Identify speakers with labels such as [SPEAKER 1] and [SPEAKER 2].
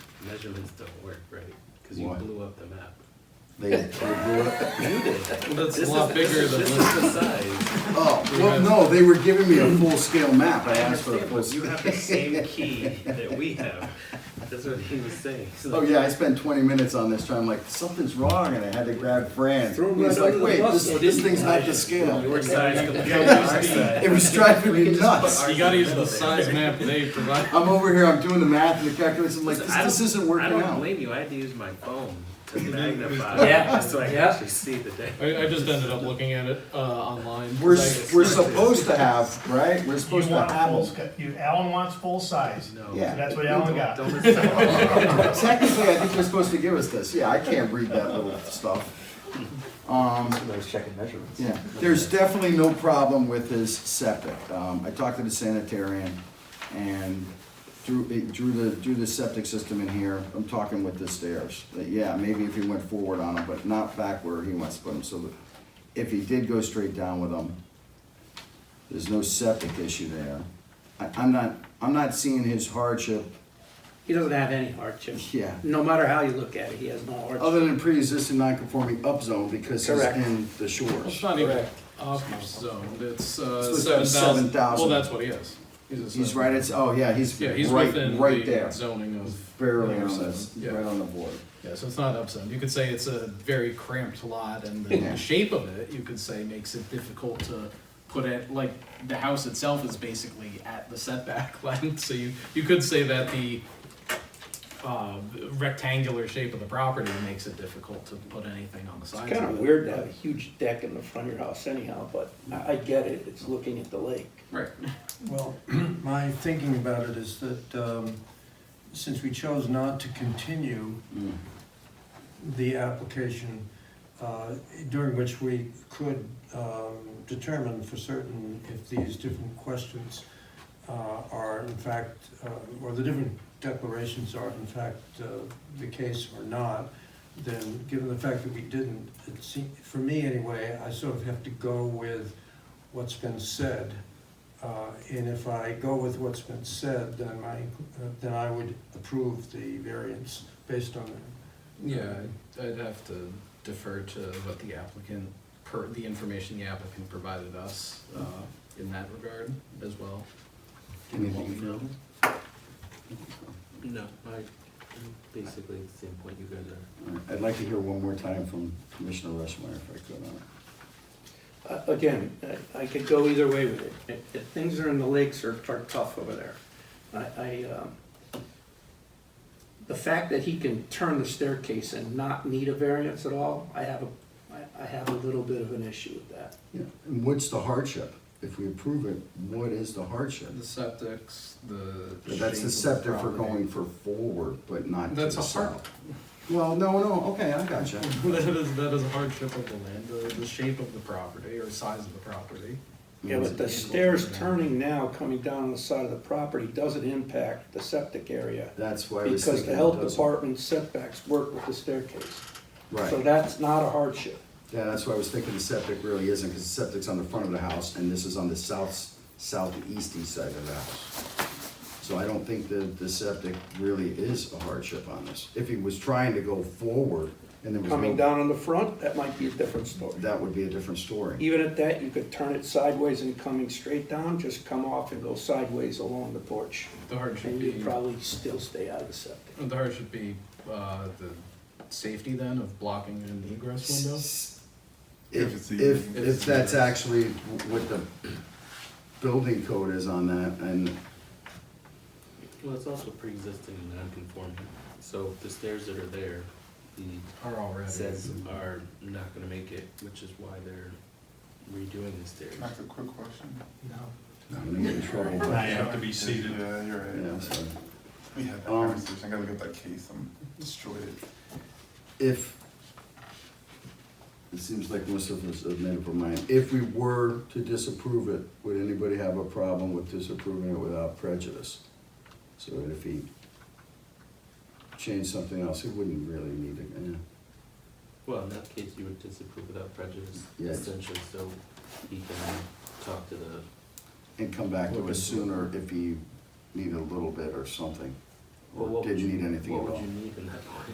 [SPEAKER 1] measurements don't work right, because you
[SPEAKER 2] Why?
[SPEAKER 1] blew up the map.
[SPEAKER 2] They, they blew up.
[SPEAKER 1] You did.
[SPEAKER 3] that's a
[SPEAKER 1] This
[SPEAKER 3] lot
[SPEAKER 1] is- this
[SPEAKER 3] bigger
[SPEAKER 1] is-
[SPEAKER 3] than
[SPEAKER 1] This
[SPEAKER 3] what-
[SPEAKER 1] is the size.
[SPEAKER 2] Oh, well, no, they were giving me a full-scale map. I
[SPEAKER 1] I
[SPEAKER 2] asked for a
[SPEAKER 1] understand,
[SPEAKER 2] full.
[SPEAKER 1] but you have the same key that we have. That's what he was saying. He's
[SPEAKER 2] Oh
[SPEAKER 1] like,
[SPEAKER 2] yeah, I spent 20 minutes on this trying. I'm like, something's wrong, and I had to grab Fran.
[SPEAKER 4] Throw him
[SPEAKER 2] He's
[SPEAKER 4] right
[SPEAKER 2] like,
[SPEAKER 4] under the
[SPEAKER 2] wait,
[SPEAKER 4] bus,
[SPEAKER 2] this,
[SPEAKER 4] though,
[SPEAKER 2] this
[SPEAKER 4] didn't
[SPEAKER 2] thing's not the scale.
[SPEAKER 1] Your size compared to
[SPEAKER 2] Yeah.
[SPEAKER 1] our size.
[SPEAKER 2] It was driving me nuts.
[SPEAKER 3] You gotta use the size map they provide.
[SPEAKER 2] I'm over here, I'm doing the math and the calculations. I'm like,
[SPEAKER 1] So
[SPEAKER 2] this,
[SPEAKER 1] I
[SPEAKER 2] this
[SPEAKER 1] don't-
[SPEAKER 2] isn't working
[SPEAKER 1] I don't
[SPEAKER 2] out.
[SPEAKER 1] blame you. I had to use my phone to magnify
[SPEAKER 5] Yeah,
[SPEAKER 1] just so I could
[SPEAKER 5] yeah.
[SPEAKER 1] actually see the day.
[SPEAKER 3] I, I just ended up looking at it uh, online.
[SPEAKER 2] We're,
[SPEAKER 3] Like,
[SPEAKER 2] we're supposed to have, right? We're supposed
[SPEAKER 6] You
[SPEAKER 2] to
[SPEAKER 6] want
[SPEAKER 2] have
[SPEAKER 6] full,
[SPEAKER 2] them.
[SPEAKER 6] sc- you, Alan wants full size.
[SPEAKER 1] No.
[SPEAKER 2] Yeah.
[SPEAKER 6] That's what Alan got.
[SPEAKER 1] Don't listen to him.
[SPEAKER 2] Technically, I think you're supposed to give us this. Yeah, I can't read that little stuff. Um,
[SPEAKER 4] Those checking measurements.
[SPEAKER 2] Yeah, there's definitely no problem with his septic. Um, I talked to the sanitarian and drew, it drew the, drew the septic system in here. I'm talking with the stairs. But yeah, maybe if he went forward on them, but not back where he wants to put them. So that if he did go straight down with them, there's no septic issue there. I, I'm not, I'm not seeing his hardship,
[SPEAKER 5] He doesn't have any hardship.
[SPEAKER 2] yeah.
[SPEAKER 5] No matter how you look at it, he has no hardship.
[SPEAKER 2] Other than pre-existing non-conforming upzone because he's
[SPEAKER 5] Correct.
[SPEAKER 2] in the
[SPEAKER 3] It's
[SPEAKER 2] shores.
[SPEAKER 3] not even off zone. It's uh,
[SPEAKER 2] Supposed to
[SPEAKER 3] seven
[SPEAKER 2] have 7,000.
[SPEAKER 3] thousand. Well, that's what he is. a
[SPEAKER 2] He's
[SPEAKER 3] seven.
[SPEAKER 2] right, it's, oh yeah, he's
[SPEAKER 3] Yeah, he's
[SPEAKER 2] right,
[SPEAKER 3] within
[SPEAKER 2] right
[SPEAKER 3] the
[SPEAKER 2] there.
[SPEAKER 3] zoning of
[SPEAKER 2] barely on
[SPEAKER 3] Upzone,
[SPEAKER 2] this,
[SPEAKER 3] Yeah.
[SPEAKER 2] right on the board.
[SPEAKER 3] Yeah, so it's not upzone. You could say it's a very cramped lot, and the,
[SPEAKER 2] Yeah.
[SPEAKER 3] the shape of it, you could say, makes it difficult to put it. Like the house itself is basically at the setback line, so you you could say that the uh, rectangular shape of the property makes it difficult to put anything on the
[SPEAKER 5] It's
[SPEAKER 3] sides.
[SPEAKER 5] kind of
[SPEAKER 3] it.
[SPEAKER 5] weird to have a huge deck in the front of your house anyhow, but I, I get it, it's looking at the lake.
[SPEAKER 3] Right.
[SPEAKER 7] Well, my thinking about it is that um, since we chose not to continue
[SPEAKER 2] Mm.
[SPEAKER 7] the application, uh, during which we could um, determine for certain if these different questions uh, are in fact, uh, or the different declarations are in fact uh, the case or not, then given the fact that we didn't, it seemed, for me anyway, I sort of have to go with what's been said. Uh, And if I go with what's been said, then my, then I would approve the variance based on that.
[SPEAKER 3] Yeah, I'd- I'd have to defer to what the applicant, per, the information the applicant provided us, uh, in that regard as well.
[SPEAKER 2] Anything
[SPEAKER 1] No. No, I, I'm basically at the same point you guys are.
[SPEAKER 2] I'd like to hear one more time from Commissioner Rushmeyer if I could on it.
[SPEAKER 5] Uh, Again, I- I could go either way with it. If- if Things are in the lakes are are tough over there. I, I, um, the fact that he can turn the staircase and not need a variance at all, I have a, I- I have a little bit of an issue with that.
[SPEAKER 2] Yeah, And what's the hardship? If we approve it, what is the hardship?
[SPEAKER 3] The septics, the.
[SPEAKER 2] But That's
[SPEAKER 3] shape
[SPEAKER 2] the
[SPEAKER 3] of
[SPEAKER 2] septic for
[SPEAKER 3] property.
[SPEAKER 2] going for forward, but not to
[SPEAKER 3] That's
[SPEAKER 2] the
[SPEAKER 3] a hard-
[SPEAKER 2] south. Well, no, no, okay, I gotcha.
[SPEAKER 3] That is, that is a hardship of the land, the, the shape of the property or size of the property.
[SPEAKER 5] Yeah, but the stairs turning now, coming down on the side of the property, doesn't impact the septic area.
[SPEAKER 2] That's why I was thinking.
[SPEAKER 5] Because the health
[SPEAKER 2] it doesn't.
[SPEAKER 5] department setbacks work with the staircase. So
[SPEAKER 2] Right,
[SPEAKER 5] that's not a hardship.
[SPEAKER 2] yeah, that's why I was thinking the septic really isn't, because the septic's on the front of the house, and this is on the south, southeasty side of the house. So I don't think that the septic really is a hardship on this. If he was trying to go forward and there was no.
[SPEAKER 5] Coming down on the front, that might be a different story.
[SPEAKER 2] That would be a different story.
[SPEAKER 5] Even at that, you could turn it sideways and coming straight down, just come off and go sideways along the porch.
[SPEAKER 3] The hardship
[SPEAKER 5] And you'd
[SPEAKER 3] being,
[SPEAKER 5] probably still stay out of the septic.
[SPEAKER 3] the hardship be, uh, the safety then of blocking an egress window?
[SPEAKER 2] If,
[SPEAKER 8] If it's
[SPEAKER 2] if,
[SPEAKER 8] even-
[SPEAKER 2] if
[SPEAKER 3] it's
[SPEAKER 2] that's
[SPEAKER 3] even.
[SPEAKER 2] actually what the building code is on that, and
[SPEAKER 1] Well, it's also pre-existing and non-conforming, so the stairs that are there, the
[SPEAKER 3] Are already.
[SPEAKER 1] says are not gonna make it, which is why they're redoing the stairs.
[SPEAKER 8] Can I ask a quick question?
[SPEAKER 2] I'm gonna get in trouble, but,
[SPEAKER 8] You have to be seated. Yeah, you're
[SPEAKER 2] you know,
[SPEAKER 8] right.
[SPEAKER 2] so.
[SPEAKER 8] We had that
[SPEAKER 2] Um,
[SPEAKER 8] conversation, I gotta look at that case, I'm destroyed.
[SPEAKER 2] If, it seems like most of us have made up our mind, if we were to disapprove it, would anybody have a problem with disapproving it without prejudice? So that if he changed something else, he wouldn't really need eh, it, yeah.
[SPEAKER 1] Well, in that case, you would disapprove without prejudice,
[SPEAKER 2] Yes.
[SPEAKER 1] essentially, so he can talk to the
[SPEAKER 2] And come back to us sooner if he needed a little bit or something.
[SPEAKER 1] Well, what would
[SPEAKER 2] didn't
[SPEAKER 1] you-
[SPEAKER 2] need anything at
[SPEAKER 1] What
[SPEAKER 2] all.
[SPEAKER 1] would you need in